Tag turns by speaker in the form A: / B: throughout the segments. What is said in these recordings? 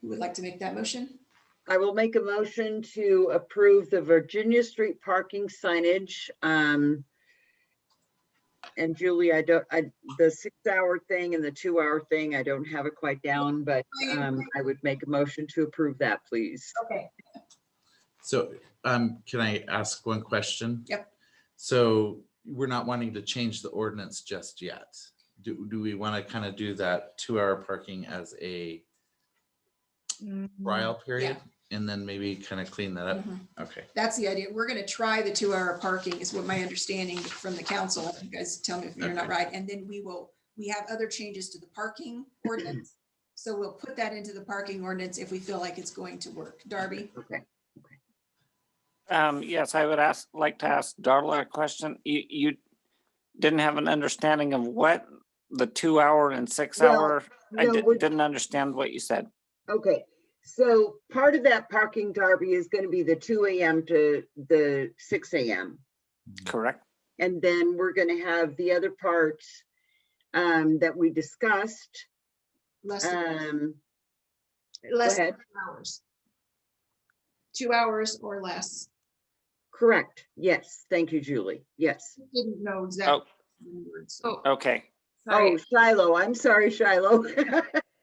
A: who would like to make that motion?
B: I will make a motion to approve the Virginia Street parking signage. um, And Julie, I don't, I, the six-hour thing and the two-hour thing, I don't have it quite down, but um, I would make a motion to approve that, please.
C: Okay,
D: So um, can I ask one question?
A: Yep.
D: So we're not wanting to change the ordinance just yet. Do, do we want to kind of do that two-hour parking as a trial period? And then maybe kind of clean that up?
A: Mhm.
D: Okay,
A: That's the idea. We're going to try the two-hour parking is what my understanding from the council. You guys tell me if you're not
D: Okay.
A: right. And then we will, we have other changes to the parking ordinance. So we'll put that into the parking ordinance if we feel like it's going to work. Darby?
B: Okay.
E: Um, yes, I would ask, like to ask Darla a question. You, you didn't have an understanding of what the two hour and six
B: Well,
E: hour? I
B: No,
E: di-
B: we're-
E: didn't understand what you said.
B: Okay, so part of that parking derby is going to be the two AM to the six AM.
E: Correct?
B: And then we're going to have the other parts um, that we discussed.
A: Less than
B: um, Go
A: less than
B: ahead.
A: two hours. Two hours or less.
B: Correct. Yes. Thank you, Julie. Yes.
A: Didn't know exactly.
C: so,
E: Okay.
C: sorry.
B: Oh, Shiloh. I'm sorry, Shiloh.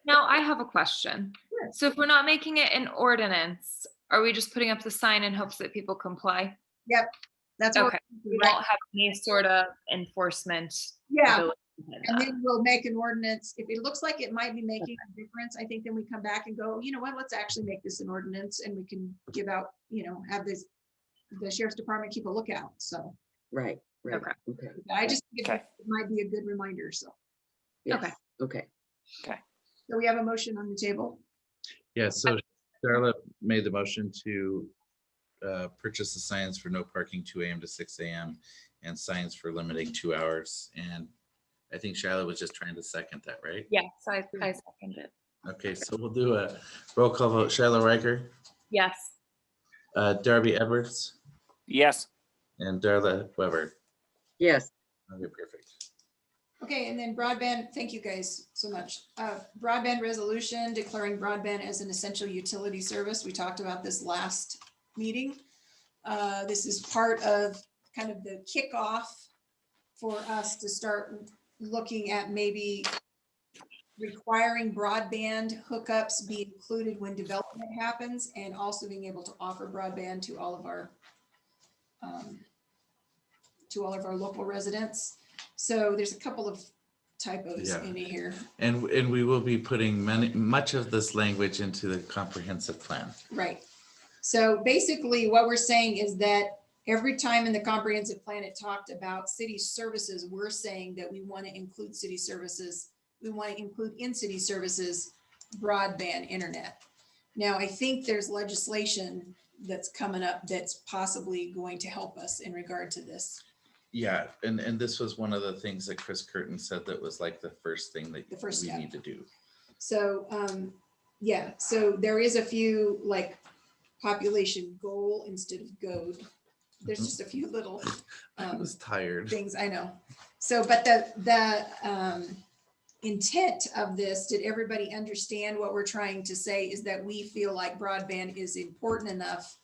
C: Now I have a question.
A: Sure.
C: So if we're not making it an ordinance, are we just putting up the sign in hopes that people comply?
A: That's what
C: Okay, we
A: we're doing.
C: won't have any sort of enforcement.
A: Yeah,
C: ability behind
A: And
C: that.
A: then we'll make an ordinance. If it looks like it might be making a difference, I think then we come back and go, you know what, let's actually make this an ordinance and we can give out, you know, have this, the sheriff's department keep a lookout. So
B: Right, right.
C: Okay.
B: Okay.
A: I just, think it
E: Okay.
A: might be a good reminder. So,
B: yes, Okay.
A: so we have a motion on the table.
D: yeah, so Darla made the motion to uh, purchase the signs for no parking two AM to six AM and signs for limiting two hours. And I think Shiloh was just trying to second that, right?
C: Yes, I, I second it.
D: Okay, so we'll do a roll call vote. Shiloh Riker,
C: Yes.
D: uh, Darby Edwards.
E: Yes.
D: And Darla Weber.
B: Yes.
D: Okay, perfect.
A: Okay, and then broadband, thank you guys so much. Uh, Broadband resolution declaring broadband as an essential utility service. We talked about this last meeting. Uh, This is part of kind of the kickoff for us to start looking at maybe requiring broadband hookups be included when development happens and also being able to offer broadband to all of our um, to all of our local residents. So there's a couple of typos
D: Yeah.
A: in here.
D: And, and we will be putting many, much of this language into the comprehensive plan.
A: Right. So basically, what we're saying is that every time in the comprehensive plan it talked about city services, we're saying that we want to include city services. We want to include in city services broadband internet. Now, I think there's legislation that's coming up that's possibly going to help us in regard to this.
D: Yeah, and, and this was one of the things that Chris Curtin said that was like the first thing that
A: The first
D: we
A: step.
D: need to do.
A: So, um, yeah, so there is a few like population goal instead of goad. There's
D: Mhm.
A: just a few little.
D: I
A: um,
D: was tired.
A: things, I know. So, but the, the um, intent of this, did everybody understand what we're trying to say is that we feel like broadband is important enough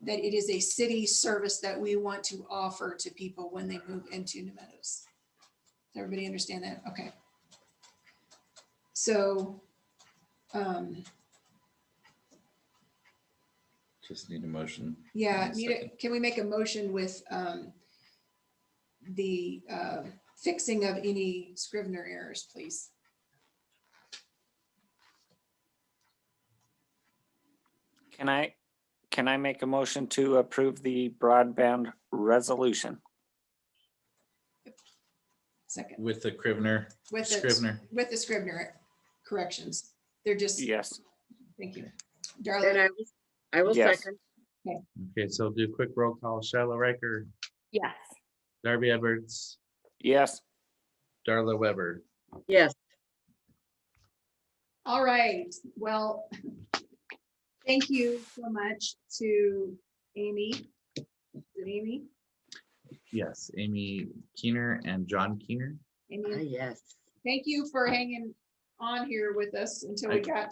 A: that it is a city service that we want to offer to people when they move into New Meadows. Does everybody understand that? Okay. So, um,
D: Just need a motion.
A: yeah,
D: One
A: need a-
D: second.
A: can we make a motion with um, the uh, fixing of any Scrivener errors, please?
E: Can I, can I make a motion to approve the broadband resolution?
A: Second,
D: With the Scrivener,
A: with the,
D: Scrivener.
A: with the Scrivener corrections. They're just,
E: Yes.
A: thank you.
B: And
A: Darla,
B: I will, I will
E: Yes.
B: second.
D: Okay, so do a quick roll call. Shiloh Riker,
C: Yes.
D: Darby Edwards,
E: Yes.
D: Darla Weber.
B: Yes.
A: all right, well, thank you so much to Amy. Is it Amy?
D: Yes, Amy Keener and John Keener.
B: Ah,
A: Amy,
B: Yes.
A: thank you for hanging on here with us until
D: I-
A: we got